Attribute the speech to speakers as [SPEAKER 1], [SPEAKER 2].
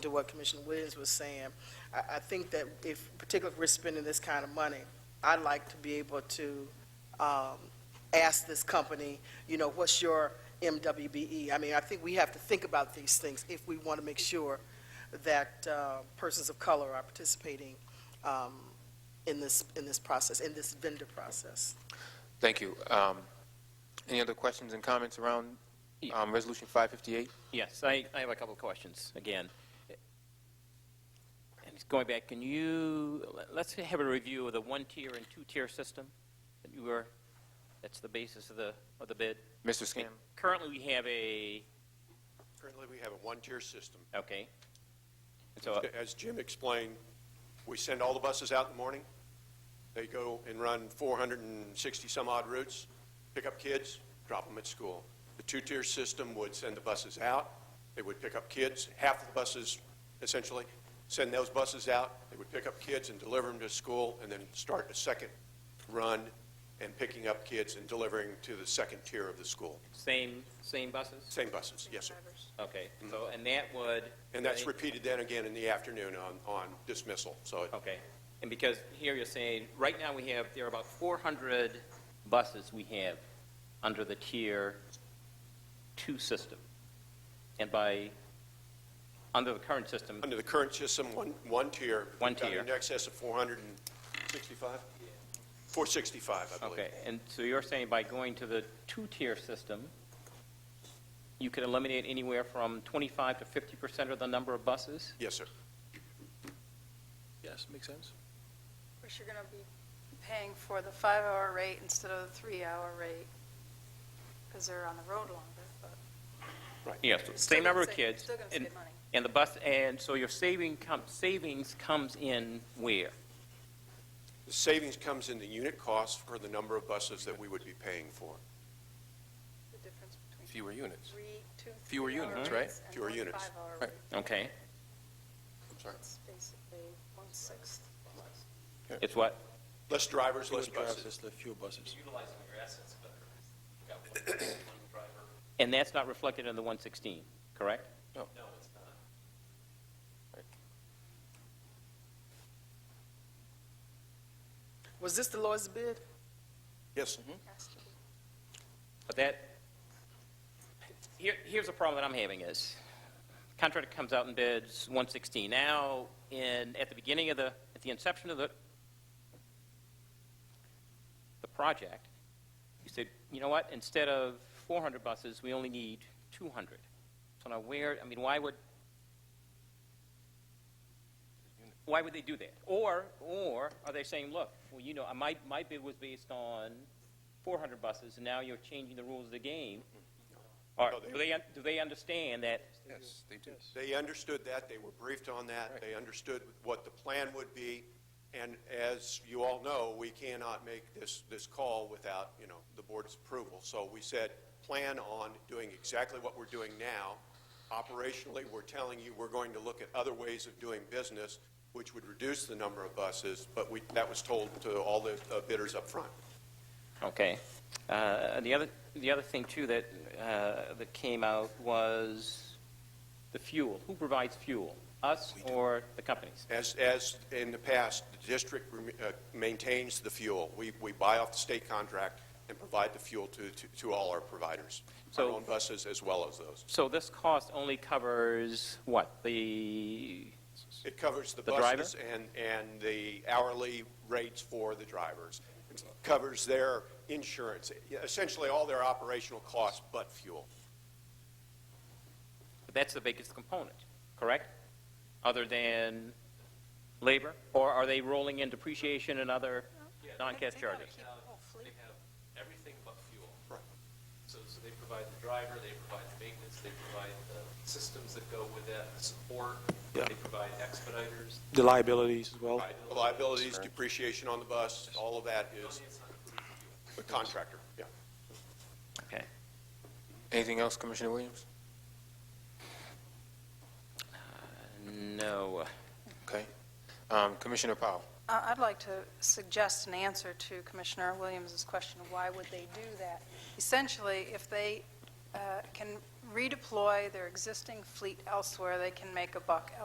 [SPEAKER 1] to what Commissioner Williams was saying, I, I think that if, particularly if we're spending this kind of money, I'd like to be able to, um, ask this company, you know, what's your MWBE? E? I mean, I think we have to think about these things if we want to make sure that, uh, persons of color are participating, um, in this, in this process, in this vendor process.
[SPEAKER 2] Thank you. Um, Any other questions and comments around
[SPEAKER 3] Yeah.
[SPEAKER 2] um, Resolution 558?
[SPEAKER 3] Yes, I, I have a couple of questions, again. And it's going back, can you, let- let's have a review of the one-tier and two-tier system that you were, that's the basis of the, of the bid.
[SPEAKER 2] Mr. Scam?
[SPEAKER 3] Currently, we have a,
[SPEAKER 4] Currently, we have a one-tier system.
[SPEAKER 3] okay. And so, uh,
[SPEAKER 4] As Jim explained, we send all the buses out in the morning. They go and run 460-some-odd routes, pick up kids, drop them at school. The two-tier system would send the buses out, they would pick up kids, half of the buses essentially, send those buses out, they would pick up kids and deliver them to school, and then start a second run and picking up kids and delivering to the second tier of the school.
[SPEAKER 3] same, same buses?
[SPEAKER 4] Same buses, yes, sir.
[SPEAKER 3] Okay, so, and that would...
[SPEAKER 4] And that's repeated then again in the afternoon on, on dismissal, so it-
[SPEAKER 3] Okay, and because here you're saying, right now we have, there are about 400 buses we have under the Tier 2 system. And by, under the current system,
[SPEAKER 4] Under the current system, one, one tier.
[SPEAKER 3] One
[SPEAKER 4] we've got
[SPEAKER 3] tier.
[SPEAKER 4] In excess of 465? 465, I believe.
[SPEAKER 3] okay, and so you're saying by going to the two-tier system, you can eliminate anywhere from 25 to 50% of the number of buses?
[SPEAKER 4] Yes, sir.
[SPEAKER 5] Yes, makes sense.
[SPEAKER 6] Which you're going to be paying for the five-hour rate instead of the three-hour rate, because they're on the road longer, but.
[SPEAKER 3] Yes, same number of kids.
[SPEAKER 6] Still going to
[SPEAKER 3] and-
[SPEAKER 6] save money.
[SPEAKER 3] And the bus, and so your saving, com- savings comes in where?
[SPEAKER 4] The savings comes in the unit cost for the number of buses that we would be paying for.
[SPEAKER 6] The difference between
[SPEAKER 5] Fewer units.
[SPEAKER 6] three, two,
[SPEAKER 5] Fewer
[SPEAKER 6] three-hour
[SPEAKER 5] units, right?
[SPEAKER 6] rates and
[SPEAKER 4] Fewer
[SPEAKER 6] one
[SPEAKER 4] units.
[SPEAKER 6] five-hour
[SPEAKER 5] Right.
[SPEAKER 6] rate.
[SPEAKER 3] Okay,
[SPEAKER 6] It's basically one-sixth.
[SPEAKER 3] it's what?
[SPEAKER 4] Less drivers, less buses.
[SPEAKER 5] the fewer buses.
[SPEAKER 7] utilizing your assets better. You've got one one driver,
[SPEAKER 3] And that's not reflected in the 116, correct?
[SPEAKER 7] no, it's not.
[SPEAKER 1] Was this the lowest bid?
[SPEAKER 4] Yes,
[SPEAKER 3] Mm-hmm.
[SPEAKER 6] Has to be.
[SPEAKER 3] But that, here, here's the problem that I'm having is, contractor comes out and bids 116. Now, in, at the beginning of the, at the inception of the, the project, you said, you know what, instead of 400 buses, we only need 200. So now where, I mean, why would, why would they do that? Or, or are they saying, look, well, you know, my, my bid was based on 400 buses, and now you're changing the rules of the game? Or
[SPEAKER 4] No, they-
[SPEAKER 3] do they, un- do they understand that,
[SPEAKER 5] Yes, they do.
[SPEAKER 4] they understood that, they were briefed on that, they understood what the plan would be, and as you all know, we cannot make this, this call without, you know, the board's approval. So we said, plan on doing exactly what we're doing now. Operationally, we're telling you, we're going to look at other ways of doing business, which would reduce the number of buses, but we, that was told to all the uh, bidders up front.
[SPEAKER 3] Okay. Uh, The other, the other thing too that, uh, that came out was the fuel. Who provides fuel? Us or the companies?
[SPEAKER 4] As, as in the past, the district rem- uh, maintains the fuel. We, we buy off the state contract and provide the fuel to, to, to all our providers, our
[SPEAKER 3] So-
[SPEAKER 4] own buses as well as those.
[SPEAKER 3] So this cost only covers what? The,
[SPEAKER 4] It covers the
[SPEAKER 3] The driver?
[SPEAKER 4] buses and, and the hourly rates for the drivers. It Covers their insurance, essentially all their operational costs but fuel.
[SPEAKER 3] that's the biggest component, correct? Other than labor? Or are they rolling in depreciation and other non-cash
[SPEAKER 6] They- they gotta
[SPEAKER 3] charges?
[SPEAKER 6] keep the whole fleet.
[SPEAKER 7] They have everything but fuel.
[SPEAKER 4] Right.
[SPEAKER 7] So, so they provide the driver, they provide the maintenance, they provide the systems that go with that, the support,
[SPEAKER 8] Yeah.
[SPEAKER 7] they provide expediters.
[SPEAKER 8] The liabilities as well.
[SPEAKER 4] The Liabilities, depreciation on the bus, all of that is
[SPEAKER 7] It's not included in fuel.
[SPEAKER 4] the contractor, yeah.
[SPEAKER 3] Okay.
[SPEAKER 2] Anything else, Commissioner Williams?
[SPEAKER 3] No.
[SPEAKER 2] Okay. Um, Commissioner Powell?
[SPEAKER 6] Uh, I'd like to suggest an answer to Commissioner Williams' question, why would they do that? Essentially, if they uh, can redeploy their existing fleet elsewhere, they can make a buck